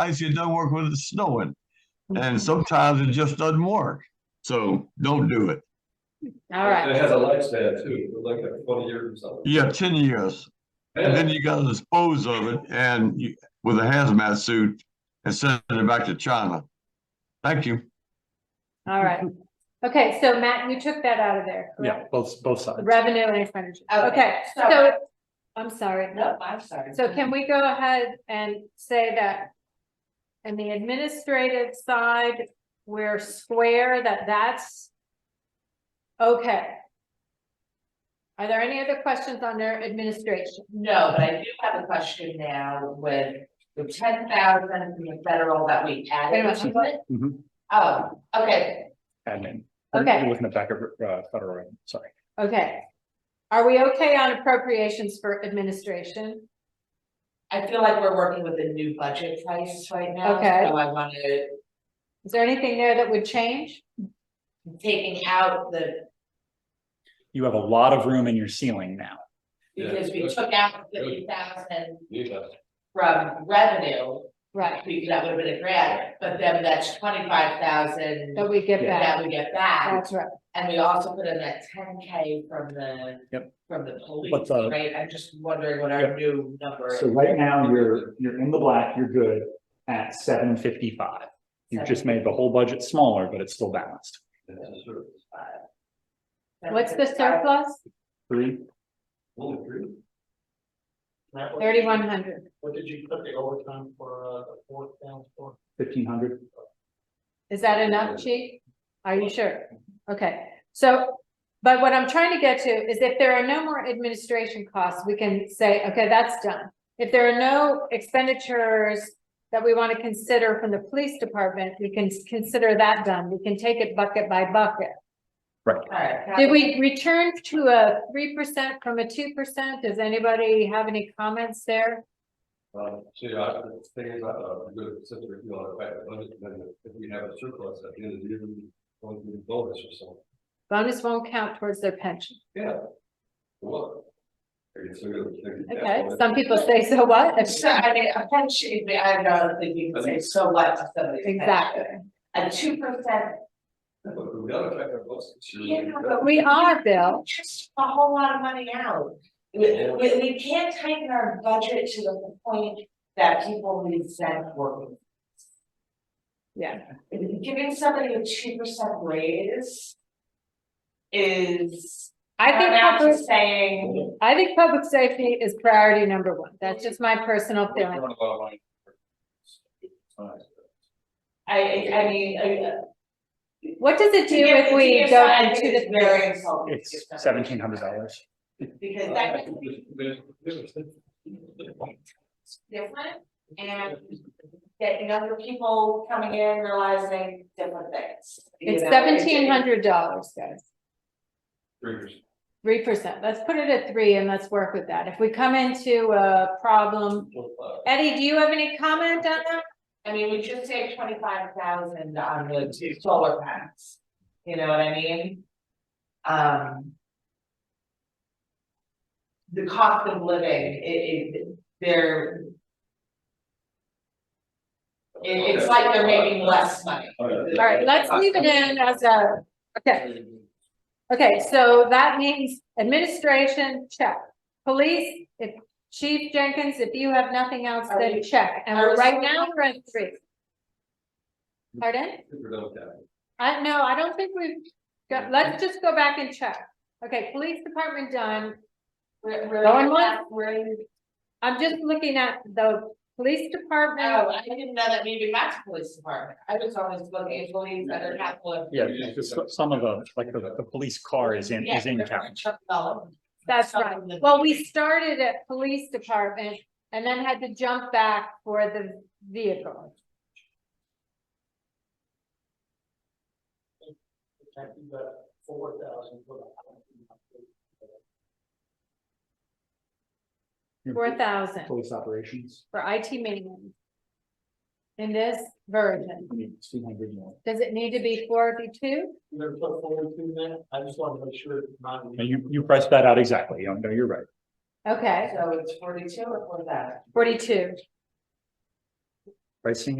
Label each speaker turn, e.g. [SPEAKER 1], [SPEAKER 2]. [SPEAKER 1] ice, it doesn't work when it's snowing. And sometimes it just doesn't work. So don't do it.
[SPEAKER 2] All right,
[SPEAKER 3] It has a lifespan too, like like twenty years or something.
[SPEAKER 1] Yeah, ten years. And then you gotta dispose of it and you, with a hazmat suit and send it back to China. Thank you.
[SPEAKER 2] all right. Okay, so Matt, you took that out of there,
[SPEAKER 4] Yeah,
[SPEAKER 2] correct?
[SPEAKER 4] both, both sides.
[SPEAKER 2] Revenue and expenditure. Okay,
[SPEAKER 5] so-
[SPEAKER 2] so, I'm sorry.
[SPEAKER 5] No, I'm sorry.
[SPEAKER 2] So can we go ahead and say that in the administrative side, we're square that that's okay? Are there any other questions on their administration?
[SPEAKER 5] No, but I do have a question now with the ten thousand from the federal that we
[SPEAKER 2] Wait a
[SPEAKER 5] added
[SPEAKER 2] minute,
[SPEAKER 5] to it.
[SPEAKER 4] Mhm.
[SPEAKER 5] Oh, okay,
[SPEAKER 4] Admin.
[SPEAKER 2] Okay.
[SPEAKER 4] Looking at back of, uh, federal, revenue, sorry.
[SPEAKER 2] Okay. Are we okay on appropriations for administration?
[SPEAKER 5] I feel like we're working with a new budget price right now, so
[SPEAKER 2] Okay.
[SPEAKER 5] I wanna,
[SPEAKER 2] Is there anything there that would change?
[SPEAKER 5] taking out the,
[SPEAKER 4] You have a lot of room in your ceiling now.
[SPEAKER 3] Yeah.
[SPEAKER 5] because we took out fifty thousand
[SPEAKER 3] Yeah.
[SPEAKER 5] from revenue.
[SPEAKER 2] Right,
[SPEAKER 5] we- That would have been a grant, but then that's twenty-five thousand
[SPEAKER 2] that we get back.
[SPEAKER 5] that we get back,
[SPEAKER 2] That's right.
[SPEAKER 5] and we also put in that ten K from the.
[SPEAKER 4] Yep.
[SPEAKER 5] From the police,
[SPEAKER 4] But the-
[SPEAKER 5] right, I'm just wondering what our new number is.
[SPEAKER 4] So right now, you're, you're in the black, you're good at seven fifty-five. You've just made the whole budget smaller, but it's still balanced.
[SPEAKER 3] that's sort of-
[SPEAKER 2] What's the surplus?
[SPEAKER 4] Three,
[SPEAKER 3] Only three?
[SPEAKER 2] Thirty-one hundred.
[SPEAKER 3] What did you put the overtime for, uh, the fourth down for?
[SPEAKER 4] fifteen hundred.
[SPEAKER 2] Is that enough, chief? Are you sure? Okay, so, but what I'm trying to get to is if there are no more administration costs, we can say, okay, that's done. If there are no expenditures that we want to consider from the police department, we can consider that done. We can take it bucket by bucket.
[SPEAKER 5] Alright.
[SPEAKER 2] Did we return to a three percent from a two percent? Does anybody have any comments there?
[SPEAKER 3] Um, see, I, the thing is, uh, I'm good, since we're, you know, if I, if we have a surplus at the end of the year, we'll do a bonus or something.
[SPEAKER 2] Bonus won't count towards their pension.
[SPEAKER 3] Yeah. What? Are you still gonna- they're gonna-
[SPEAKER 2] Okay, some people say, so what?
[SPEAKER 5] So, I mean, a pension, I don't think you can say so what to somebody's pension.
[SPEAKER 2] Exactly.
[SPEAKER 5] A two percent,
[SPEAKER 3] But we gotta affect our books.
[SPEAKER 5] Yeah, but
[SPEAKER 2] We are, Bill.
[SPEAKER 5] just a whole lot of money out. We, we, we can't tighten our budget to the point that people resent working.
[SPEAKER 2] Yeah.
[SPEAKER 5] Giving somebody a two percent raise is.
[SPEAKER 2] I think
[SPEAKER 5] paramount to
[SPEAKER 2] public,
[SPEAKER 5] Saying,
[SPEAKER 2] I think public safety is priority number one. That's just my personal feeling.
[SPEAKER 5] I, I- I mean, uh,
[SPEAKER 2] What does it
[SPEAKER 5] to
[SPEAKER 2] do
[SPEAKER 5] give,
[SPEAKER 2] if
[SPEAKER 5] to
[SPEAKER 2] we
[SPEAKER 5] give
[SPEAKER 2] go
[SPEAKER 5] some- I
[SPEAKER 2] into
[SPEAKER 5] think
[SPEAKER 2] the?
[SPEAKER 5] it's very insulting. to give
[SPEAKER 4] It's
[SPEAKER 5] somebody
[SPEAKER 4] seventeen hundred dollars.
[SPEAKER 5] Because
[SPEAKER 3] uh,
[SPEAKER 5] that is different and that younger people coming in realizing different things. you
[SPEAKER 2] It's
[SPEAKER 5] know, it-
[SPEAKER 2] seventeen hundred dollars, guys. Three percent. Let's put it at three and let's work with that. If we come into a problem, Eddie, do you have any comment on that?
[SPEAKER 5] I mean, we just saved twenty-five thousand on the two solar panels, you know what I mean? Um. The cost of living, it, it, they're, it- it's like they're making less money.
[SPEAKER 3] Oh,
[SPEAKER 2] All right, let's leave it in as a, okay. Okay, so that means administration, check. Police, if Chief Jenkins, if you have nothing else,
[SPEAKER 5] Are
[SPEAKER 2] then
[SPEAKER 5] we-
[SPEAKER 2] check. And
[SPEAKER 5] are we-
[SPEAKER 2] right now, we're at three. Pardon? I, no, I don't think we've, got- let's just go back and check. Okay, police department done.
[SPEAKER 5] We're, we're.
[SPEAKER 2] Going once?
[SPEAKER 5] We're,
[SPEAKER 2] I'm just looking at the police department.
[SPEAKER 5] oh, I didn't know that maybe that's police department, I was always looking at police that are capital.
[SPEAKER 4] Yeah, because so- some of the, like, the, the police car is in, is in town.
[SPEAKER 2] That's right. Well, we started at police department and then had to jump back for the vehicle.
[SPEAKER 3] Four thousand for the.
[SPEAKER 2] Four thousand
[SPEAKER 4] Police operations,
[SPEAKER 2] for IT maintenance. In this version.
[SPEAKER 4] I mean, two hundred more.
[SPEAKER 2] Does it need to be four forty-two?
[SPEAKER 3] You gonna put forty-two in that? I just wanna make sure it's not.
[SPEAKER 4] No, You, you priced that out exactly. No, you're right.
[SPEAKER 2] Okay,
[SPEAKER 5] So it's forty-two or four thousand?
[SPEAKER 2] forty-two.
[SPEAKER 4] pricing